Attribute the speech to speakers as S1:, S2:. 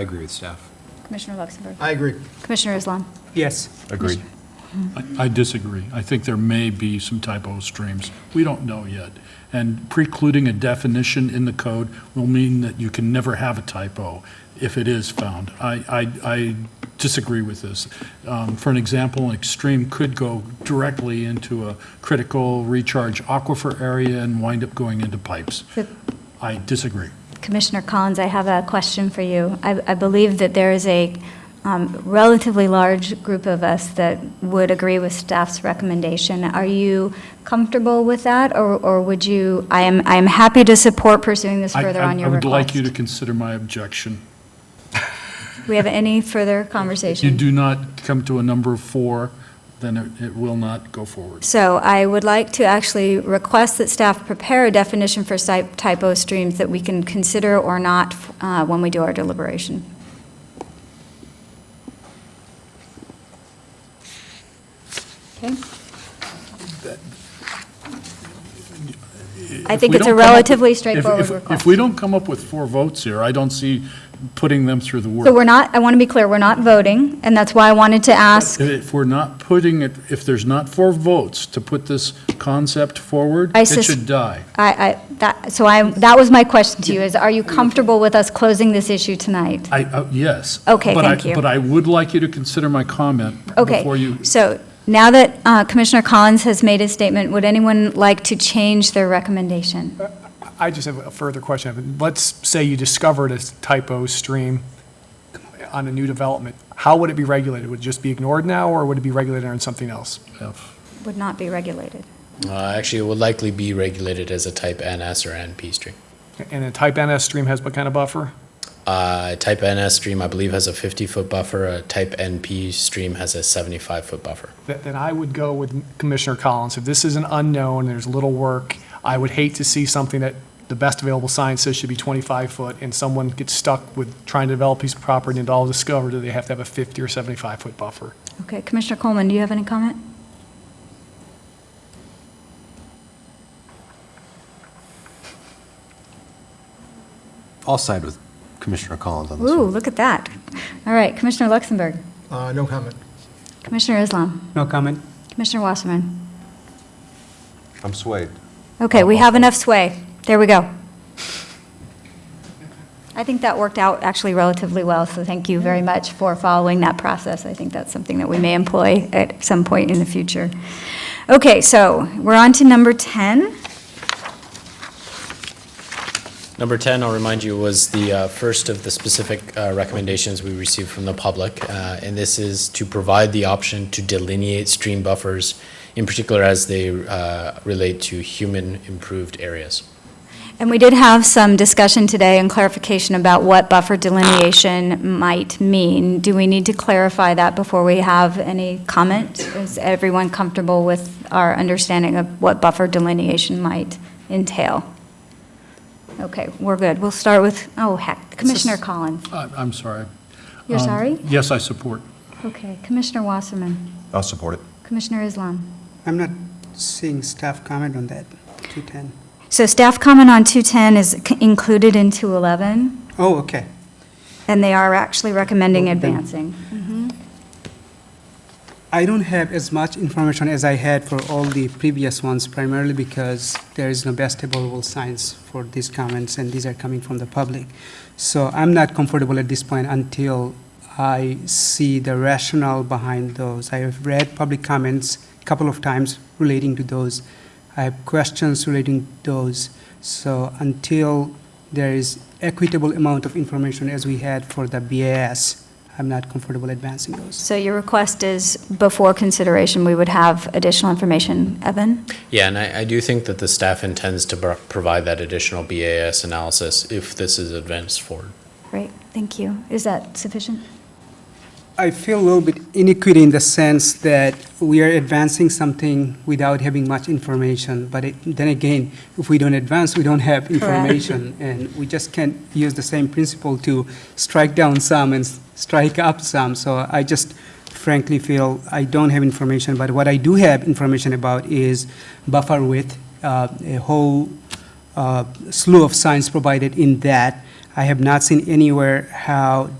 S1: I agree with staff.
S2: Commissioner Luxembourg.
S3: I agree.
S2: Commissioner Islam.
S3: Yes.
S4: Agreed.
S5: I- I disagree. I think there may be some typo streams. We don't know yet. And precluding a definition in the code will mean that you can never have a typo if it is found. I, I, I disagree with this. Um, For an example, an extreme could go directly into a critical recharge aquifer area and wind up going into pipes.
S2: But-
S5: I disagree.
S2: Commissioner Collins, I have a question for you. I, I believe that there is a um, relatively large group of us that would agree with staff's recommendation. Are you comfortable with that, or, or would you, I am, I am happy to support pursuing this
S5: I-
S2: further
S5: I-
S2: on your
S5: I would like you to
S2: request.
S5: consider my objection.
S2: We have any further
S5: If you
S2: conversation?
S5: do not come to a number of four, then it- it will not go forward.
S2: So I would like to actually request that staff prepare a definition for site typo streams that we can consider or not uh, when we do our deliberation. Okay? I
S5: If
S2: think
S5: we
S2: it's a
S5: don't come up with-
S2: relatively
S5: if-
S2: straightforward
S5: if-
S2: request.
S5: If we don't come up with four votes here, I don't see putting them through the
S2: So we're
S5: work.
S2: not, I want to be clear, we're not voting, and that's why I wanted to ask,
S5: If we're not putting it, if there's not four votes to put this concept forward,
S2: I
S5: it
S2: sus-
S5: should die.
S2: I, I, that, so I, that was my question to you, is are you comfortable with us closing this issue tonight?
S5: I, uh, yes.
S2: Okay,
S5: But I-
S2: thank you.
S5: But I would like you to consider my comment before you.
S2: Okay, so now that uh, Commissioner Collins has made his statement, would anyone like to change their recommendation?
S3: I just have a further question. Let's say you discovered a typo stream on a new development. How would it be regulated? Would it just be ignored now, or would it be regulated on something else?
S5: F.
S2: Would not be regulated.
S6: Uh, actually, it would likely be regulated as a type NS or NP stream.
S3: And a type NS stream has what kind of buffer?
S6: Uh, type NS stream, I believe, has a 50 foot buffer. A type NP stream has a 75 foot buffer.
S3: Th- Then I would go with Commissioner Collins. If this is an unknown, there's little work, I would hate to see something that the best available science says should be 25 foot, and someone gets stuck with trying to develop a piece of property and all discovered that they have to have a 50 or 75 foot buffer.
S2: Okay, Commissioner Coleman, do you have any comment?
S1: I'll side with Commissioner Collins on this
S2: Ooh,
S1: one.
S2: look at that. All right, Commissioner Luxembourg,
S7: Uh, No comment.
S2: Commissioner Islam,
S3: No comment.
S2: Commissioner Wasserman.
S1: I'm swayed.
S2: Okay, we have enough sway. There we go. I think that worked out actually relatively well, so thank you very much for following that process. I think that's something that we may employ at some point in the future. Okay, so we're on to number 10.
S6: Number 10, I'll remind you, was the uh, first of the specific uh, recommendations we received from the public. uh, And this is to provide the option to delineate stream buffers, in particular as they uh, relate to human improved areas.
S2: And we did have some discussion today and clarification about what buffer delineation might mean. Do we need to clarify that before we have any comment? Is everyone comfortable with our understanding of what buffer delineation might entail? Okay, we're good. We'll start with, oh heck, Commissioner Collins.
S5: I- uh, I'm sorry.
S2: You're
S5: Um,
S2: sorry?
S5: Yes, I support.
S2: Okay, Commissioner Wasserman,
S1: I'll support it.
S2: Commissioner Islam.
S8: I'm not seeing staff comment on that, 210.
S2: So staff comment on 210 is c- included in 211,
S8: Oh, okay.
S2: and they are actually recommending
S8: Well, then-
S2: advancing.
S8: I don't have as much information as I had for all the previous ones, primarily because there is no best available science for these comments, and these are coming from the public. So I'm not comfortable at this point until I see the rationale behind those. I have read public comments a couple of times relating to those. I have questions relating to those. So until there is equitable amount of information as we had for the BAS, I'm not comfortable advancing those.
S2: So your request is, before consideration, we would have additional information. Evan?
S6: Yeah, and I, I do think that the staff intends to bro- provide that additional BAS analysis if this is advanced forward.
S2: Great, thank you. Is that sufficient?
S8: I feel a little bit inequity in the sense that we are advancing something without having much information, but it- then again, if we don't advance, we don't have information, and we just can't use the same principle to strike down some and s- strike up some, so I just frankly feel I don't have information, but what I do have information about is buffer width, uh, a whole uh, slew of science provided in that. I have not seen anywhere how